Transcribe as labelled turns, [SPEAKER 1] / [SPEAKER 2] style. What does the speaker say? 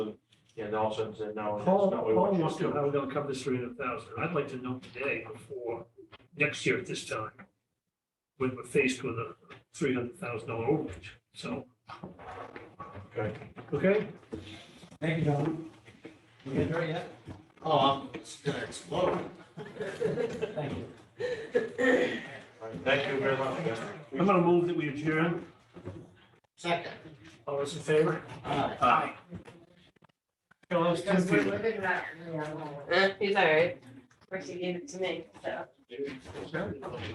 [SPEAKER 1] Yeah, and all of a sudden said, no, that's
[SPEAKER 2] Paul,
[SPEAKER 1] not what we
[SPEAKER 2] Paul
[SPEAKER 1] want you
[SPEAKER 2] wants
[SPEAKER 1] to
[SPEAKER 2] to know
[SPEAKER 1] do.
[SPEAKER 2] how we're gonna cover this three hundred thousand. I'd like to know today before, next year at this time, when we're faced with a three hundred thousand dollar overage. So,
[SPEAKER 1] Okay.
[SPEAKER 2] okay?
[SPEAKER 3] Thank you, John. We get there yet?
[SPEAKER 4] Oh, I'm just gonna explode.
[SPEAKER 3] Thank you.
[SPEAKER 1] All right, Thank you very much. guys.
[SPEAKER 2] I'm gonna move that we adjourn.
[SPEAKER 4] Second.
[SPEAKER 2] All those in favor?
[SPEAKER 4] Aye.
[SPEAKER 2] Aye. Tell those two
[SPEAKER 5] Because we're
[SPEAKER 2] people.
[SPEAKER 5] looking at,
[SPEAKER 4] Eh?
[SPEAKER 5] he's all right, Ricky gave it to me, so.